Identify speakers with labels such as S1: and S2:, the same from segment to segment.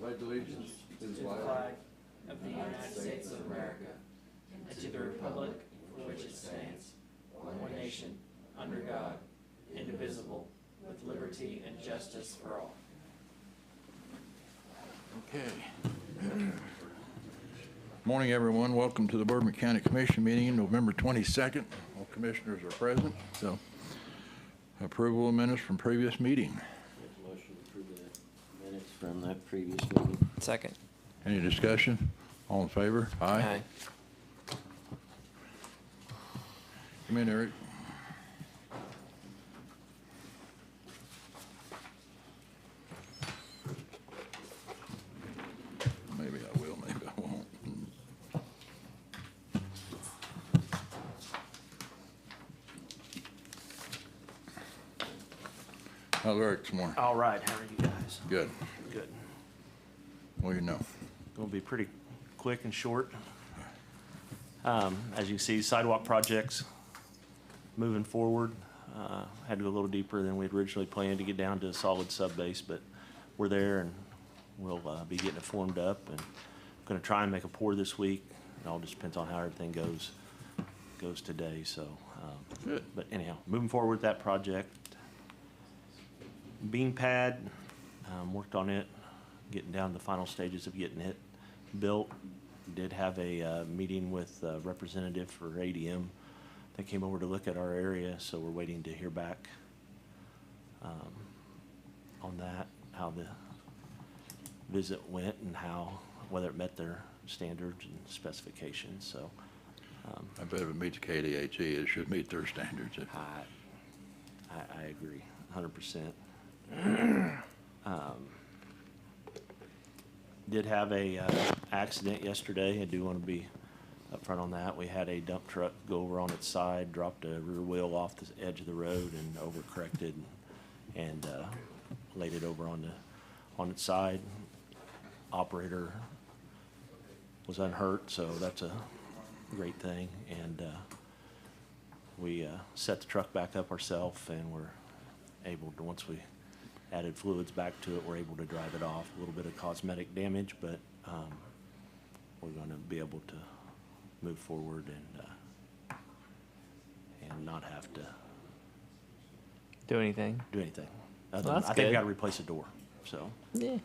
S1: pledge allegiance to the
S2: to the
S1: flag
S2: flag of the United States of America and to the republic for which it stands, one nation, under God, indivisible, with liberty and justice for all.
S1: Okay. Morning, everyone. Welcome to the Bourbon County Commission meeting, November 22nd. All commissioners are present, so approval of minutes from previous meeting.
S3: Make a motion to approve the minutes from that previous meeting.
S2: Second.
S1: Any discussion? All in favor? Aye. Come in, Eric. Maybe I will, maybe I won't. How's Eric this morning?
S4: All right, how are you guys?
S1: Good.
S4: Good.
S1: Well, you know.
S4: Gonna be pretty quick and short. Um, As you see, sidewalk projects moving forward. Uh, Had to go a little deeper than we'd originally planned to get down to a solid sub-base, but we're there and we'll uh, be getting it formed up. And gonna try and make a pour this week. It all just depends on how everything goes, goes today, so. um,
S1: Good.
S4: But anyhow, moving forward with that project. Bean pad, um, worked on it, getting down to the final stages of getting it built. Did have a, uh, meeting with a representative for ADM that came over to look at our area, so we're waiting to hear back, um, on that, how the visit went and how, whether it met their standards and specifications, so. um,
S1: I bet if it meets KDHE, E, it should meet their standards. It-
S4: I, I, I agree, hundred percent. Um, Did have a, uh, accident yesterday, I do wanna be upfront on that, we had a dump truck go over on its side, dropped a rear wheel off the edge of the road and overcorrected and, uh, laid it over on the, on its side. Operator was unhurt, so that's a great thing, and, uh, we uh, set the truck back up ourselves and we're able to, once we added fluids back to it, we're able to drive it off. A little bit of cosmetic damage, but um, we're going to be able to move forward and, uh, and not have to
S5: do anything.
S4: do anything. Other
S5: Well,
S4: than-
S5: that's
S4: I think we
S5: good.
S4: got to replace a door, so,
S5: Yeah.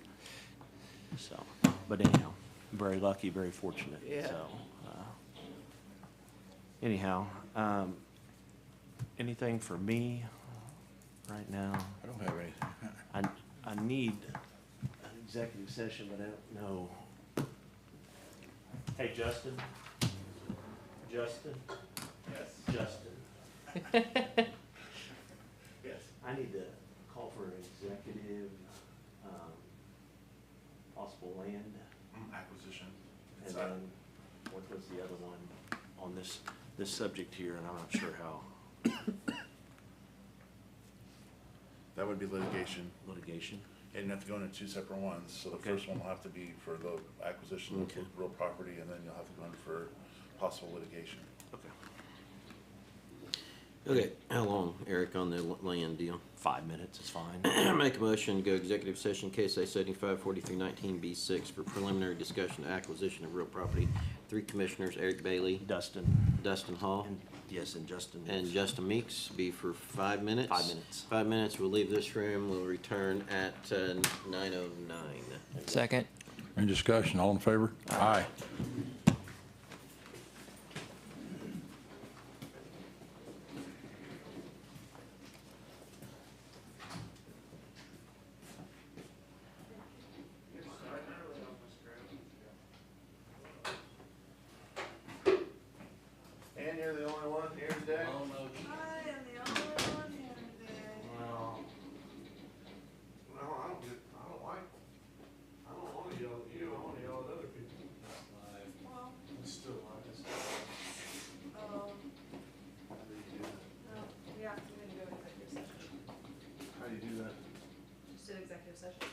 S4: so. But anyhow, very lucky, very fortunate, so. uh, Anyhow, um, anything for me right now?
S1: I don't have anything.
S4: I, I need an executive session, but I don't know. Hey, Justin? Justin? Yes. Justin? Yes. I need to call for an executive, um, possible land,
S6: Mm, acquisition. uh,
S4: and then what was the other one on this, this subject here, and I'm not sure how
S6: That would be litigation.
S4: litigation.
S6: And you have to go into two separate ones, so the
S4: Okay.
S6: first one will have to be for the acquisition of
S4: Okay.
S6: real property, and then you'll have to go in for possible litigation.
S4: Okay.
S3: Okay, how long, Eric, on the l- land deal?
S4: Five minutes is fine.
S3: Make a motion to go executive session, KSA seventy-five forty-three nineteen B six for preliminary discussion of acquisition of real property. Three commissioners, Eric Bailey,
S4: Dustin?
S3: Dustin Hall,
S4: And, yes, and Justin.
S3: and Justin Meeks, be for five minutes.
S4: Five minutes.
S3: Five minutes, we'll leave this room, we'll return at nine oh nine.
S5: Second.
S1: Any discussion, all in favor? Aye.
S6: And you're the only one here today?
S7: I am the only one here today.
S6: No. No, I don't get, I don't like, I don't wanna yell at you, I wanna yell at other people.
S7: Well,
S6: Still, I just.
S7: um, no, we have to go into executive session.
S6: How do you do that?
S7: Just did executive session.